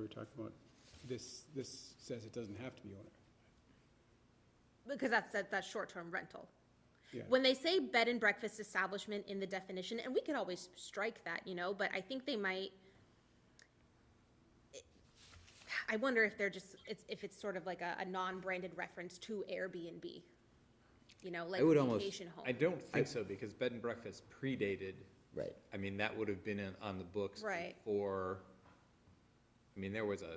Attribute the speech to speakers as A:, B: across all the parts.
A: talking about, this, this says it doesn't have to be owner.
B: Because that's, that, that's short-term rental.
A: Yeah.
B: When they say bed and breakfast establishment in the definition, and we could always strike that, you know, but I think they might. I wonder if they're just, it's, if it's sort of like a, a non-branded reference to Airbnb, you know, like
C: would almost-
B: vacation home.
D: I don't think so, because bed and breakfast predated,
C: Right.
D: I mean, that would have been in- on the books
B: Right.
D: before. I mean, there was a,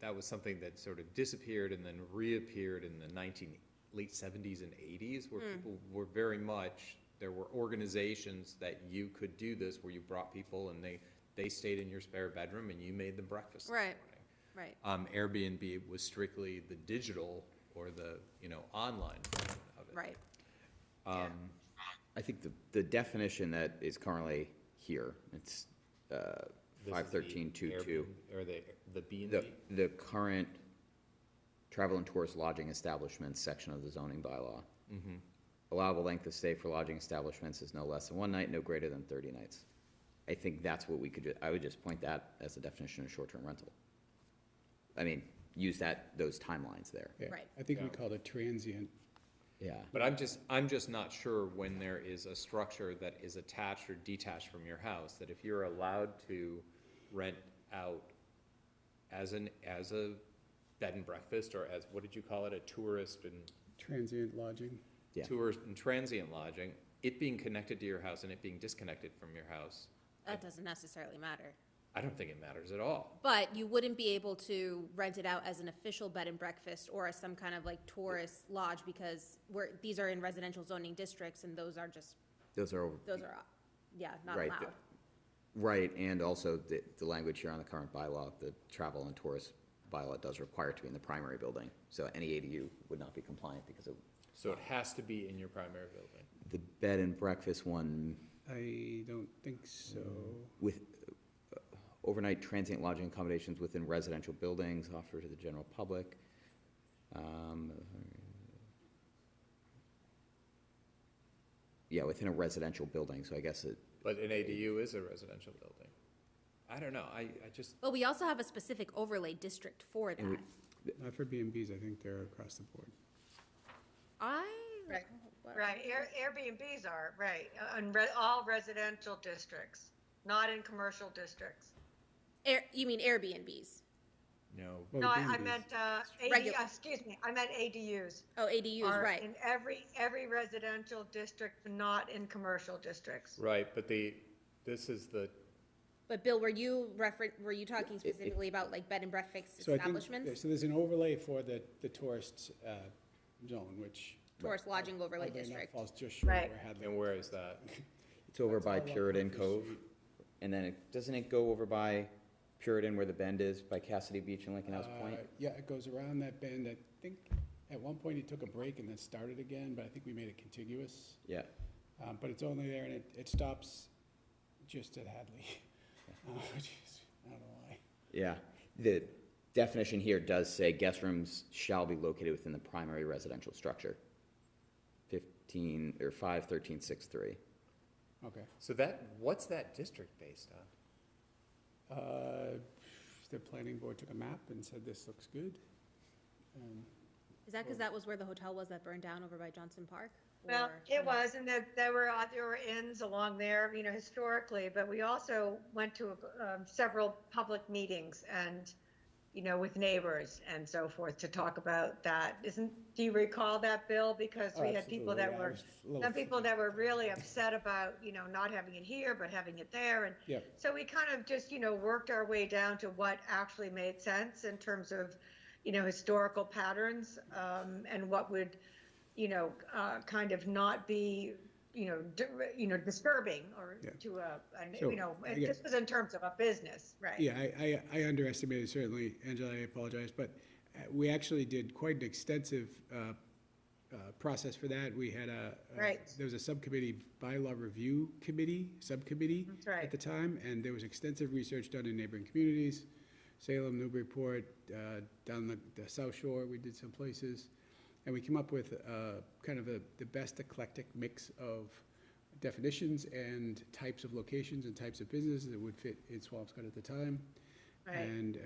D: that was something that sort of disappeared and then reappeared in the nineteen, late seventies and eighties, where
B: Hmm.
D: people were very much, there were organizations that you could do this, where you brought people and they, they stayed in your spare bedroom and you made them breakfast. in the
B: Right.
D: morning.
B: Right,
D: Um, Airbnb was strictly the digital or the, you know, online version of it.
B: right.
C: I think the, the definition that is currently here, it's uh,
D: This is
C: five
D: the
C: thirteen two two.
D: Airbnb- Or the, the B and
C: The,
D: B?
C: the current travel and tourist lodging establishments section of the zoning bylaw.
D: Mm-hmm.
C: Allowable length of stay for lodging establishments is no less than one night, no greater than thirty nights. I think that's what we could, ju- I would just point that as the definition of short-term rental. I mean, use that, those timelines there.
A: Yeah.
B: Right.
A: I think we called it transient,
C: Yeah.
D: But I'm just, I'm just not sure when there is a structure that is attached or detached from your house, that if you're allowed to rent out as an, as a bed and breakfast, or as, what did you call it, a tourist and
A: transient lodging.
C: Yeah.
D: tourist and transient lodging, it being connected to your house and it being disconnected from your house,
B: That doesn't necessarily matter.
D: I don't think it matters at all.
B: But you wouldn't be able to rent it out as an official bed and breakfast or as some kind of like tourist lodge because we're, these are in residential zoning districts and those are just,
C: Those are,
B: those are, yeah, not
C: Right,
B: allowed.
C: right, and also the, the language here on the current bylaw, the travel and tourist bylaw does require it to be in the primary building. So any ADU would not be compliant because of,
D: So it has to be in your primary building.
C: the bed and breakfast one
A: I don't think so.
C: with uh, overnight transient lodging accommodations within residential buildings offered to the general public. Um, Yeah, within a residential building, so I guess it,
D: But an ADU is a residential building. I don't know, I, I just,
B: But we also have a specific overlay district for that.
A: Mm-hmm.
C: Mm-hmm.
A: Not for B and Bs, I think they're across the board.
B: I.
E: Right, Right, Air- Airbnbs are, right, on re- all residential districts, not in commercial districts.
B: Air, you mean Airbnbs?
D: no,
A: Well,
E: No, I,
A: B and
E: I
A: Bs.
E: meant, uh, AD,
B: Regu-
E: excuse me, I meant ADUs.
B: Oh, ADUs,
E: are
B: right.
E: In every, every residential district, not in commercial districts.
D: Right, but the, this is the,
B: But Bill, were you refer, were you talking specifically about like bed and breakfast
A: So I think,
B: establishments?
A: so there's an overlay for the, the tourist, uh, zone, which.
B: Tourist lodging overlay
A: oddly enough
B: district.
A: Falls just short of
E: Right.
A: where Hadley.
D: and where is that?
C: it's over by
A: all up
C: Puritan
A: Market
C: Cove.
A: Street.
C: And then, it- doesn't it go over by Puritan where the bend is, by Cassidy Beach and Lincoln House Point?
A: Uh, Yeah, it goes around that bend. I think at one point it took a break and then started again, but I think we made it contiguous.
C: Yeah,
A: Um, but it's only there and it, it stops just at Hadley. Uh, which is- I don't know why.
C: yeah. The definition here does say guest rooms shall be located within the primary residential structure. Fifteen, or five thirteen six three.
A: Okay.
D: So that, what's that district based on?
A: Uh, the planning board took a map and said, this looks good. Um,
B: Is that because that was where the hotel was that burned down over by Johnson Park?
E: Well,
B: Or-
E: it was, and there, there were, uh, there were inns along there, you know, historically, but we also went to, um, several public meetings and, you know, with neighbors and so forth to talk about that. Isn't, do you recall that, Bill? Because
A: Oh,
E: we had people
A: absolutely,
E: that
A: yeah, I
E: were,
A: was a little
E: some people that were really upset about, you know, not having it here, but having it there, and
A: Yeah.
E: so we kind of just, you know, worked our way down to what actually made sense in terms of, you know, historical patterns um, and what would, you know, uh, kind of not be, you know, di- you know, disturbing or
A: Yeah.
E: to a, a
A: So,
E: you know,
A: I
E: and
A: guess-
E: this was in terms of a business, right?
A: Yeah, I, I, I underestimated certainly, Angela, I apologize, but uh, we actually did quite an extensive, uh, uh, process for that. We had a. a-
E: Right.
A: There was a subcommittee, bylaw review committee, subcommittee.
E: That's right.
A: At the time, and there was extensive research done in neighboring communities, Salem, Newburyport, uh, down the, the South Shore, we did some places. And we came up with, uh, kind of a, the best eclectic mix of definitions and types of locations and types of businesses that would fit in Swampscott at the time.
E: Right.
A: And, uh,